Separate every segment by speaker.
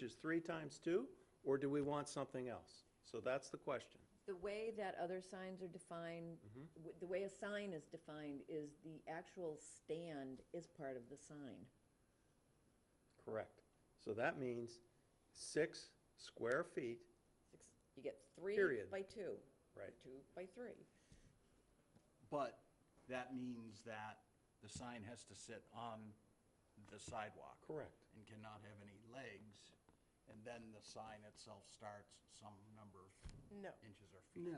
Speaker 1: which is three times two, or do we want something else? So that's the question.
Speaker 2: The way that other signs are defined,
Speaker 3: Mm-hmm.
Speaker 2: w- the way a sign is defined is the actual stand is part of the sign.
Speaker 1: Correct. So that means six square feet,
Speaker 2: Six- You get three
Speaker 1: Period.
Speaker 2: by two.
Speaker 1: Right.
Speaker 2: Two by three.
Speaker 3: But that means that the sign has to sit on the sidewalk.
Speaker 1: Correct.
Speaker 3: And cannot have any legs, and then the sign itself starts some number of
Speaker 4: No,
Speaker 3: inches or feet.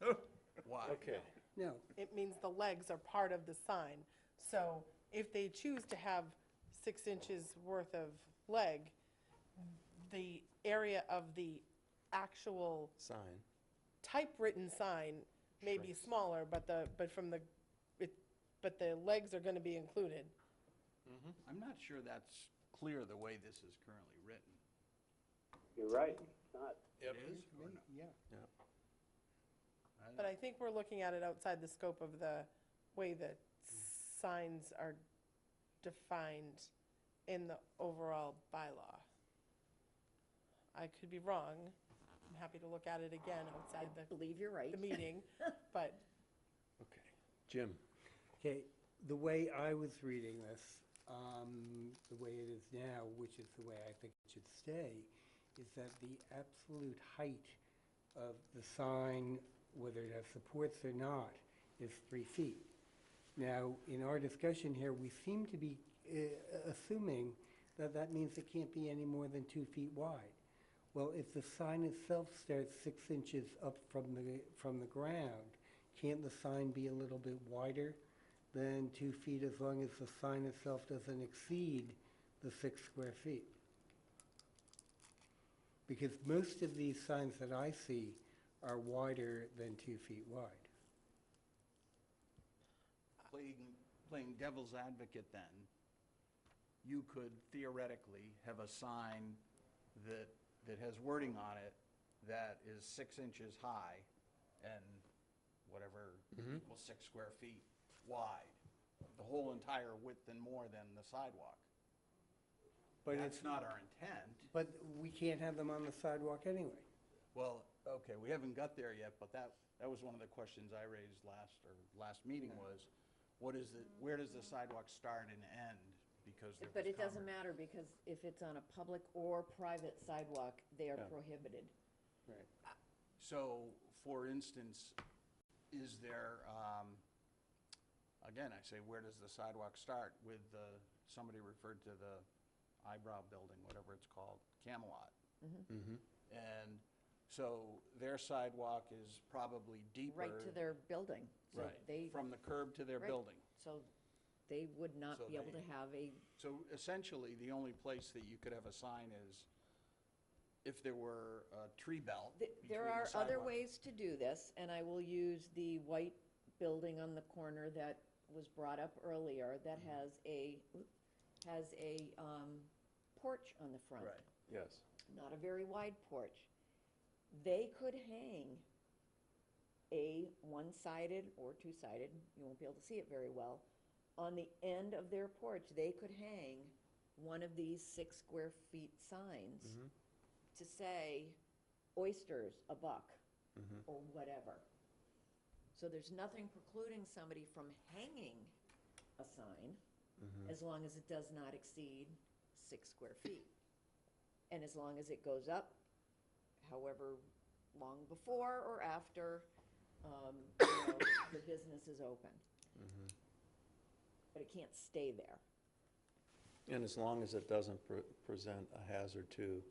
Speaker 5: No,
Speaker 3: Why?
Speaker 1: okay.
Speaker 5: no,
Speaker 4: it means the legs are part of the sign. So if they choose to have six inches worth of leg, the area of the actual
Speaker 1: Sign.
Speaker 4: typewritten sign may be smaller, but the, but from the, it, but the legs are gonna be included.
Speaker 3: I'm not sure that's clear the way this is currently written.
Speaker 6: You're right, it's not.
Speaker 3: It is or no?
Speaker 5: yeah.
Speaker 4: But I think we're looking at it outside the scope of the way that signs are defined in the overall bylaw. I could be wrong. I'm happy to look at it again outside the,
Speaker 2: Believe you're right.
Speaker 4: the meeting, but
Speaker 1: Okay. Jim?
Speaker 5: Okay, the way I was reading this, um, the way it is now, which is the way I think it should stay, is that the absolute height of the sign, whether it has supports or not, is three feet. Now, in our discussion here, we seem to be uh, assuming that that means it can't be any more than two feet wide. Well, if the sign itself starts six inches up from the, from the ground, can't the sign be a little bit wider than two feet as long as the sign itself doesn't exceed the six square feet? Because most of these signs that I see are wider than two feet wide.
Speaker 3: Playing, playing devil's advocate then, you could theoretically have a sign that, that has wording on it that is six inches high and whatever, equals six square feet wide, the whole entire width and more than the sidewalk.
Speaker 5: But
Speaker 3: That's not our intent.
Speaker 5: But we can't have them on the sidewalk anyway.
Speaker 3: Well, okay, we haven't got there yet, but that, that was one of the questions I raised last, or last meeting was, what is the, where does the sidewalk start and end? Because there was.
Speaker 2: But it doesn't matter
Speaker 3: conver-
Speaker 2: because if it's on a public or private sidewalk, they are
Speaker 1: Yeah.
Speaker 2: prohibited.
Speaker 1: Right.
Speaker 3: So, for instance, is there, um, again, I say, where does the sidewalk start with the, somebody referred to the eyebrow building, whatever it's called, Camelot.
Speaker 2: Mm-hmm.
Speaker 3: And so their sidewalk is probably deeper.
Speaker 2: Right to their building. So
Speaker 3: Right,
Speaker 2: They,
Speaker 3: From the curb to their
Speaker 2: Right.
Speaker 3: building.
Speaker 2: so they would not
Speaker 3: So
Speaker 2: be able
Speaker 3: they-
Speaker 2: to have a,
Speaker 3: So essentially, the only place that you could have a sign is if there were a tree belt
Speaker 2: Th-
Speaker 3: between
Speaker 2: There
Speaker 3: the
Speaker 2: are other
Speaker 3: sidewalk.
Speaker 2: ways to do this, and I will use the white building on the corner that was brought up earlier that
Speaker 3: Mm-hmm.
Speaker 2: has a, has a um, porch on the front.
Speaker 3: Right.
Speaker 1: Yes.
Speaker 2: Not a very wide porch. They could hang a one-sided or two-sided, you won't be able to see it very well, on the end of their porch, they could hang one of these six square feet signs to say oysters, a buck, or whatever. So there's nothing precluding somebody from hanging a sign as long as it does not exceed six square feet. And as long as it goes up, however long before or after, um, you know, the business is open. But it can't stay there.
Speaker 1: And as long as it doesn't pre- present a hazard to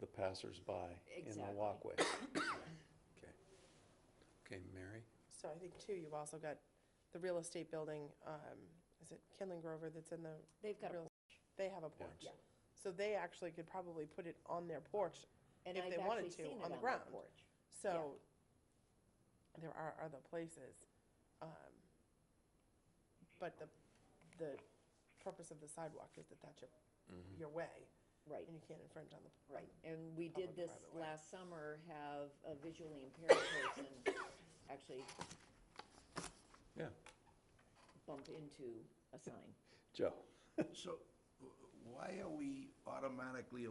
Speaker 1: the passersby in the
Speaker 2: Exactly.
Speaker 1: walkway. Okay. Okay, Mary?
Speaker 4: So I think too, you've also got the real estate building, um, is it Kinlan Grover that's in the?
Speaker 2: They've got a
Speaker 4: real- They have a porch.
Speaker 1: Yeah.
Speaker 4: So they actually could probably put it on their porch
Speaker 2: And
Speaker 4: if
Speaker 2: I've
Speaker 4: they
Speaker 2: actually
Speaker 4: wanted to,
Speaker 2: seen it
Speaker 4: on
Speaker 2: on
Speaker 4: the
Speaker 2: their
Speaker 4: ground.
Speaker 2: porch.
Speaker 4: So there are other places. um, But the, the purpose of the sidewalk is that that's your, your way
Speaker 2: Right,
Speaker 4: and you can't infringe on the.
Speaker 2: right. And we did
Speaker 4: Public
Speaker 2: this
Speaker 4: private way.
Speaker 2: last summer, have a visually impaired person actually
Speaker 1: Yeah.
Speaker 2: bump into a sign.
Speaker 1: Joe?
Speaker 3: So, w-
Speaker 7: why are we automatically